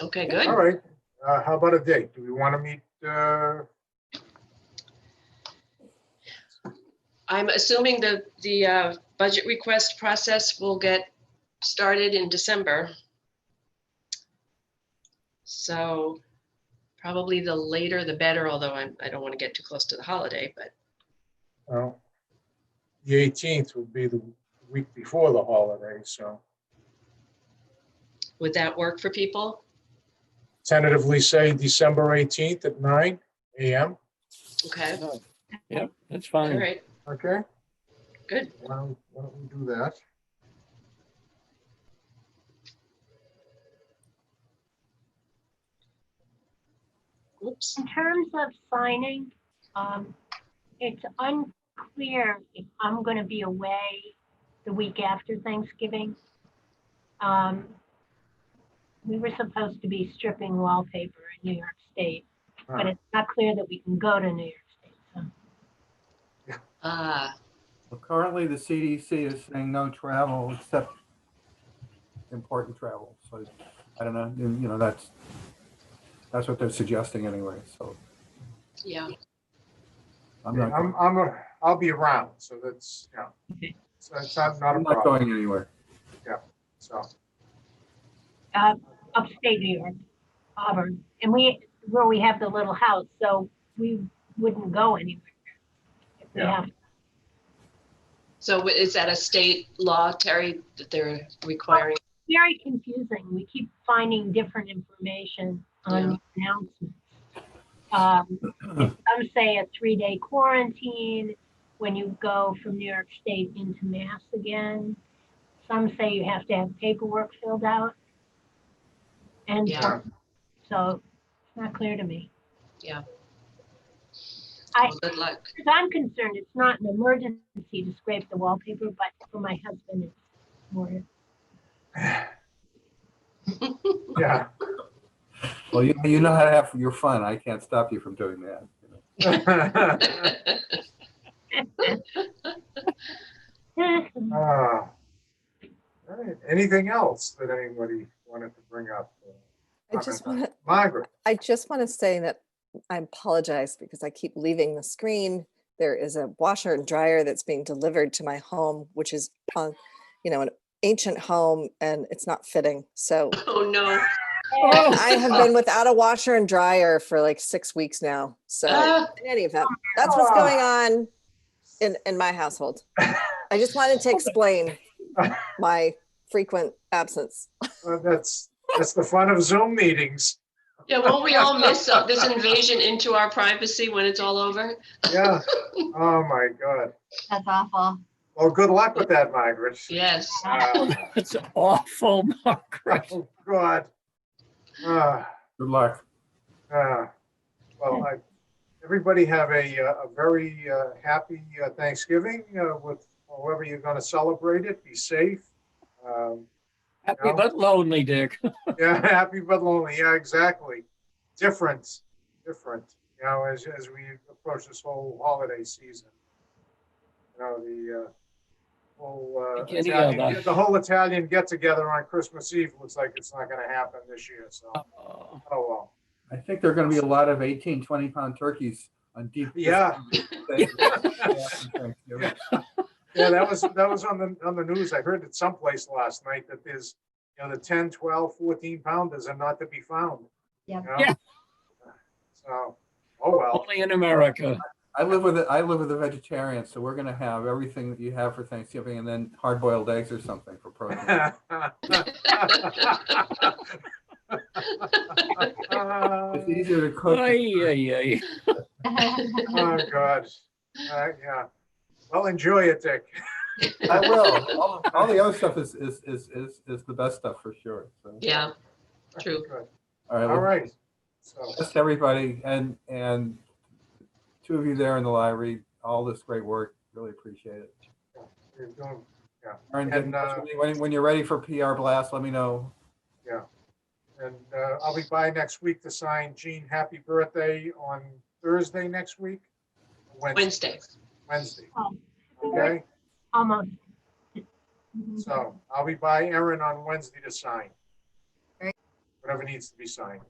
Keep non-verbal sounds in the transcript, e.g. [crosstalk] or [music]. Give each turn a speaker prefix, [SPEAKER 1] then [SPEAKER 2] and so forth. [SPEAKER 1] Okay, good.
[SPEAKER 2] All right, uh, how about a date? Do we want to meet, uh,
[SPEAKER 1] I'm assuming the, the uh, budget request process will get started in December. So probably the later the better, although I'm, I don't want to get too close to the holiday, but
[SPEAKER 2] well, the eighteenth would be the week before the holiday, so
[SPEAKER 1] would that work for people?
[SPEAKER 2] tentatively say December eighteenth at nine AM,
[SPEAKER 1] Okay,
[SPEAKER 3] Yep, that's
[SPEAKER 1] all
[SPEAKER 3] fine.
[SPEAKER 1] right,
[SPEAKER 2] okay?
[SPEAKER 1] Good.
[SPEAKER 2] Why don't why don't we do that?
[SPEAKER 1] oops.
[SPEAKER 4] In terms of signing, um, it's unclear if I'm gonna be away the week after Thanksgiving. Um, we were supposed to be stripping wallpaper in New York State, but
[SPEAKER 2] Ah.
[SPEAKER 4] it's not clear that we can go to New York State. so.
[SPEAKER 1] Ah,
[SPEAKER 5] Well, Currently, the CDC is saying no travel except important travel. So I don't know, and, you know, that's, that's what they're suggesting anyway. So
[SPEAKER 1] yeah,
[SPEAKER 5] I'm not,
[SPEAKER 2] I'm, I'm, a- I'll be around, so that's, yeah.
[SPEAKER 4] Okay.
[SPEAKER 2] So that's not, not a
[SPEAKER 5] I'm not
[SPEAKER 2] problem,
[SPEAKER 5] going anywhere.
[SPEAKER 2] so,
[SPEAKER 4] Uh, upstate New York, Auburn, and we, where we have the little house, so we wouldn't go anywhere. if we
[SPEAKER 2] Yeah.
[SPEAKER 4] have-
[SPEAKER 1] so wh- is that a state law, Terry, that they're requiring?
[SPEAKER 4] Very confusing. We keep finding different information on the announcements. Um, Some say a three-day quarantine when you go from New York State into Mass again. Some say you have to have paperwork filled out. And
[SPEAKER 1] Yeah.
[SPEAKER 4] so it's not clear to me.
[SPEAKER 1] Yeah.
[SPEAKER 4] I,
[SPEAKER 1] Well, Good luck. [laughs]
[SPEAKER 4] as I'm concerned, it's not an emergency to scrape the wallpaper, but for my husband, it's more. [laughs]
[SPEAKER 2] yeah. [laughs]
[SPEAKER 5] Well, you, you know how to have your fun. I can't stop you from doing that. you know.
[SPEAKER 2] Ah. All right, anything else that anybody wanted to bring up?
[SPEAKER 6] I just want to,
[SPEAKER 2] Margaret,
[SPEAKER 6] I just want to say that I apologize because I keep leaving the screen. There is a washer and dryer that's being delivered to my home, which is on, you know, an ancient home and it's not fitting. So
[SPEAKER 1] Oh, no.
[SPEAKER 4] Oh,
[SPEAKER 6] I have been without a washer and dryer for like six weeks now. So
[SPEAKER 1] Ah,
[SPEAKER 6] in any event, that's what's going on in, in my household. I just wanted to explain my frequent absence.
[SPEAKER 2] Uh, that's, that's the fun of Zoom meetings.
[SPEAKER 1] Yeah, won't we all miss uh, this invasion into our privacy when it's all over?
[SPEAKER 2] Yeah, oh my God.
[SPEAKER 4] That's awful. [laughs]
[SPEAKER 2] Well, good luck with that, Margaret.
[SPEAKER 1] Yes.
[SPEAKER 2] Uh,
[SPEAKER 3] It's awful,
[SPEAKER 2] [laughs]
[SPEAKER 3] Margaret.
[SPEAKER 2] Oh God. Ah,
[SPEAKER 5] Good luck.
[SPEAKER 2] ah. Well, I, everybody have a, uh, a very uh, happy uh, Thanksgiving uh, with however you're going to celebrate it. Be safe. Um,
[SPEAKER 3] Happy but lonely, Dick.
[SPEAKER 2] Yeah, [laughs] happy but lonely. Yeah, exactly. Different, different, you know, as, as we approach this whole holiday season. You know, the, uh, whole, uh,
[SPEAKER 3] Like any
[SPEAKER 2] Italian-
[SPEAKER 3] other.
[SPEAKER 2] the whole Italian get together on Christmas Eve looks like it's not gonna happen this year, so, oh
[SPEAKER 3] Oh,
[SPEAKER 2] well.
[SPEAKER 5] I think there are going to be a lot of 18, 20 pound turkeys on deep.
[SPEAKER 2] Yeah.
[SPEAKER 5] Yeah.
[SPEAKER 2] Yeah, that was, that was on the, on the news. I heard it someplace last night that there's, you know, the 10, 12, 14 pounders are not to be found.
[SPEAKER 4] Yeah.
[SPEAKER 2] you know?
[SPEAKER 3] Yeah.
[SPEAKER 2] So, oh well.
[SPEAKER 3] Only in [laughs] America.
[SPEAKER 5] I live with a, I live with a vegetarian, so we're gonna have everything that you have for Thanksgiving and then hard boiled eggs or something for protein.
[SPEAKER 2] Oh,
[SPEAKER 5] It's
[SPEAKER 2] Oh,
[SPEAKER 5] easier to cook.
[SPEAKER 3] Ay, ay, ay.
[SPEAKER 2] God. Uh, Yeah. Well, enjoy it, Dick.
[SPEAKER 5] I will. All, all the other stuff is, is, is, is, is the best stuff for sure. So,
[SPEAKER 1] Yeah, true.
[SPEAKER 2] Good.
[SPEAKER 5] All right.
[SPEAKER 2] All
[SPEAKER 5] well,
[SPEAKER 2] right. So,
[SPEAKER 5] Thanks to everybody and, and two of you there in the library, all this great work. Really appreciate it.
[SPEAKER 2] you're doing,
[SPEAKER 5] Aaron,
[SPEAKER 2] And, uh,
[SPEAKER 5] when, when you're ready for PR blast, let me know.
[SPEAKER 2] and uh, I'll be by next week to sign Gene, happy birthday on Thursday next week.
[SPEAKER 1] Wednesday.
[SPEAKER 2] Wednesday,
[SPEAKER 4] Oh,
[SPEAKER 2] okay?
[SPEAKER 4] Almost. 嗯
[SPEAKER 2] So I'll be by Erin on Wednesday to sign. whatever needs to be signed.